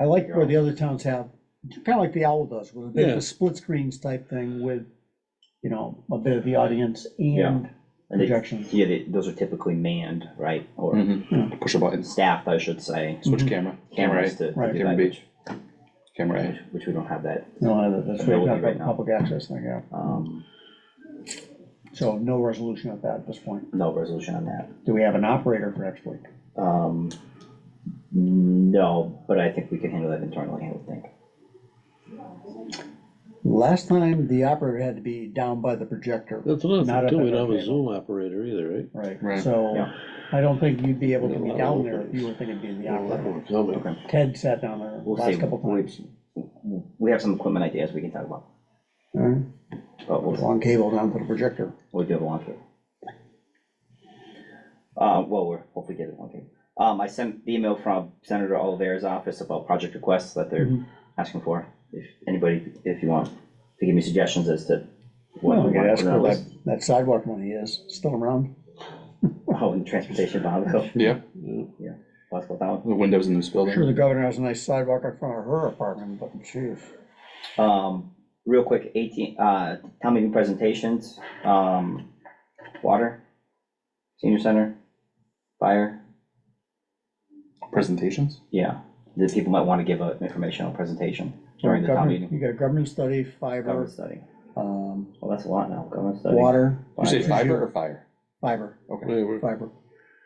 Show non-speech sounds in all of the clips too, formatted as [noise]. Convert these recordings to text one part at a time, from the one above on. I like where the other towns have, kind of like the owl does, with a bit of Yeah. a split screens type thing with, you know, a bit of the audience and And they- projections. Yeah, they, those are typically manned, right, or Mm-hmm. Mhm. Push a button, staffed, I should say. switch camera, camera Cameras A, to. Right. to Camera do that, B. camera A. Which which we don't have that, No, that's what you're Ability talking right about, now. public access thing, yeah. um, So no resolution of that at this point. no resolution on that. Do we have an operator for next week? Um, no, but I think we can handle that internally, I would think. Last time, the operator had to be down by the projector. That's another Not thing up too, at we our don't have a table. Zoom operator either, right? Right, Right. so Yeah. I don't think you'd be able to be Yeah. down there if you were thinking of being the That operator. one's coming. Okay. Ted sat down there We'll see. last couple We- times. We have some equipment ideas we can talk about, All right, but we'll, Long cable down to the projector. We'll do it one through. Uh, well, we're hopefully getting one through. Um, I sent the email from Senator Olivera's office about project requests that they're Mhm. asking for. If anybody, if you want to give me suggestions as to. what Well, we we could want ask to put on where the that, list. that sidewalk money is, still around? Oh, and [laughs] transportation, Bob, so Yeah, let's go down. the windows in this Sure, building. the governor has a nice sidewalk in front of her apartment, but jeez. Um, real quick, eighteen, uh, town meeting presentations, um, water, senior center, fire. Presentations? Yeah, the people might want to give an informational presentation during the town Governor- meeting. You got a government study, Government fiber, study. um, Well, that's a lot now, government study. Oh. water, You say Fiber. fiber or fire? fiber, Okay, Hey, we're- fiber.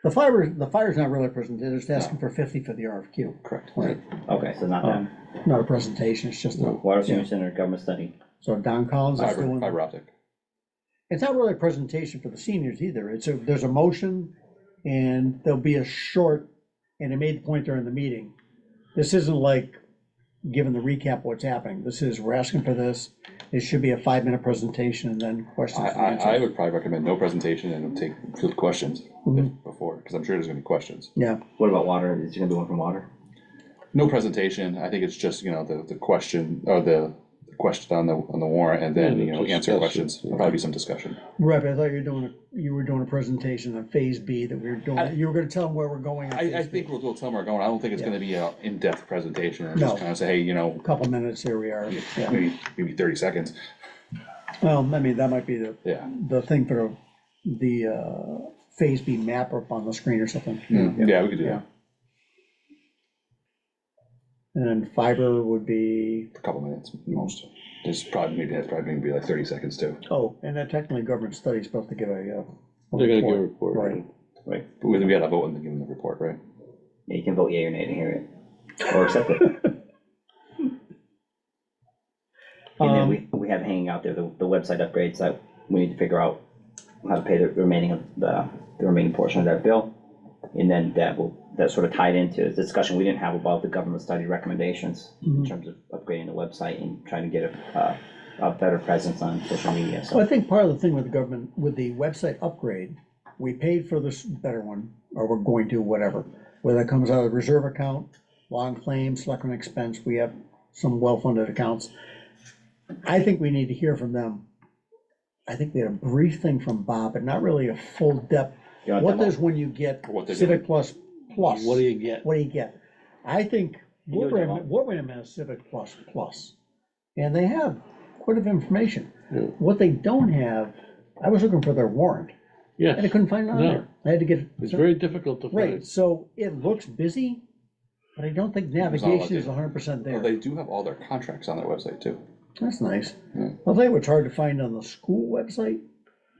The fiber, the fire's not really a presentation, it's asking for fifty for the RFQ. correct. Right. Okay, so not Um, that. Not a presentation, it's just a, Water senior center, government study. so Don Collins is Fiber, doing. fiber optic. It's not really a presentation for the seniors either. It's a, there's a motion and there'll be a short, and it made the point during the meeting. This isn't like giving the recap what's happening. This is, we're asking for this. It should be a five-minute presentation and then I, questions and I, I answers. would probably recommend no presentation and take field questions if- before, because I'm sure there's gonna be questions. Yeah, What about water? Is there gonna be one from water? No presentation, I think it's just, you know, the, the question, or the the question on the, on the warrant, and then, Yeah, you know, just answer discuss it, questions, yeah. probably some discussion. right, but I thought you were doing, a- you were doing a presentation on phase B that we were doing, you were gonna tell them where we're going. on I, I phase B. think we'll, we'll tell them where we're going, I don't think it's gonna be an in-depth presentation, i No. just kinda say, hey, you know, Couple minutes, here we are. Yeah. maybe, maybe thirty seconds, Well, I mean, that might be the, yeah. the thing for the, uh, phase B map up on the screen or something. Mm-hmm. Yeah, we could do that, And then fiber would be, a couple minutes, most, there's probably, maybe, that's probably gonna be like thirty seconds too. oh, and that technically government study is supposed to give a, uh. They're gonna give report. a report. Right. Right. But we, we gotta vote and then give them the report, right? Yeah, you can vote yea or nay to hear it, or [laughs] accept it. And Um, then we, we have hanging out there, the, the website upgrades that we need to figure out how to pay the remaining of the, the remaining portion of that bill. And then that will, that sort of tied into the discussion we didn't have about the government study recommendations in Mhm. terms of upgrading the website and trying to get a, a, a better presence on social media, so. Well, I think part of the thing with the government, with the website upgrade, we paid for this better one, or we're going to, whatever. Whether it comes out of the reserve account, long claims, selectmen expense, we have some well-funded accounts. I think we need to hear from them. I think we had a brief thing from Bob, but not really a full depth. You want What them does when you get What they're Civic Plus Plus? What do you get? what do you get? I think You know, Wilbraham, Jamal. Wilbraham has Civic Plus Plus, and they have quite a bit of information. Yeah. What they don't have, I was looking for their warrant, and I Yeah, couldn't find it on No. there. I had to get, it's very difficult to right, find. so it looks busy, but I don't think was all navigation updated. is hundred percent Well, there. they do have all their contracts on their website Oh, too. That's nice. Yeah. I'll tell you what's hard to find on the school website.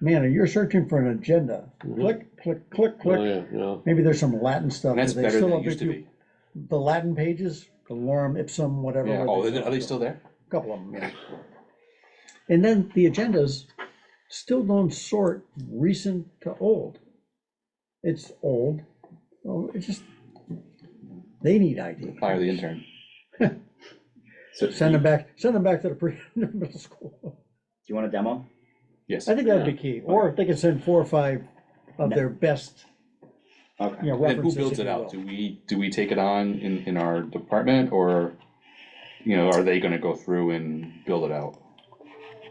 Man, you're searching for an agenda, click, click, click, Oh, click. yeah, yeah. Maybe there's some Latin stuff. Mm-hmm. And that's Do they better still than it update used to you- be. The Latin pages, the lorem ipsum, whatever. Yeah, where oh, they- is it- are they [laughs] still there? Couple of them, yeah. And then the agendas still don't sort recent to old. It's old, well, it's just, they need ID. Fire [laughs] the intern. So, Send do them back, send them back to the [laughs] pre, middle school. you want a demo? Yes. I think that'd be key, or if they could send four or five of their best, you Okay. know, And who references. builds if it you out? will. Do we, do we take it on in, in our department or, you know, are they gonna go through and build it out?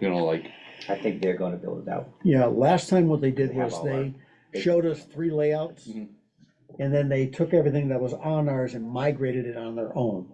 You know, like, I think they're gonna build it out. Yeah, last time what they did They have was all Mm-hmm. they our- showed us three layouts, Mhm. and then they took everything that was on ours and migrated it on their own.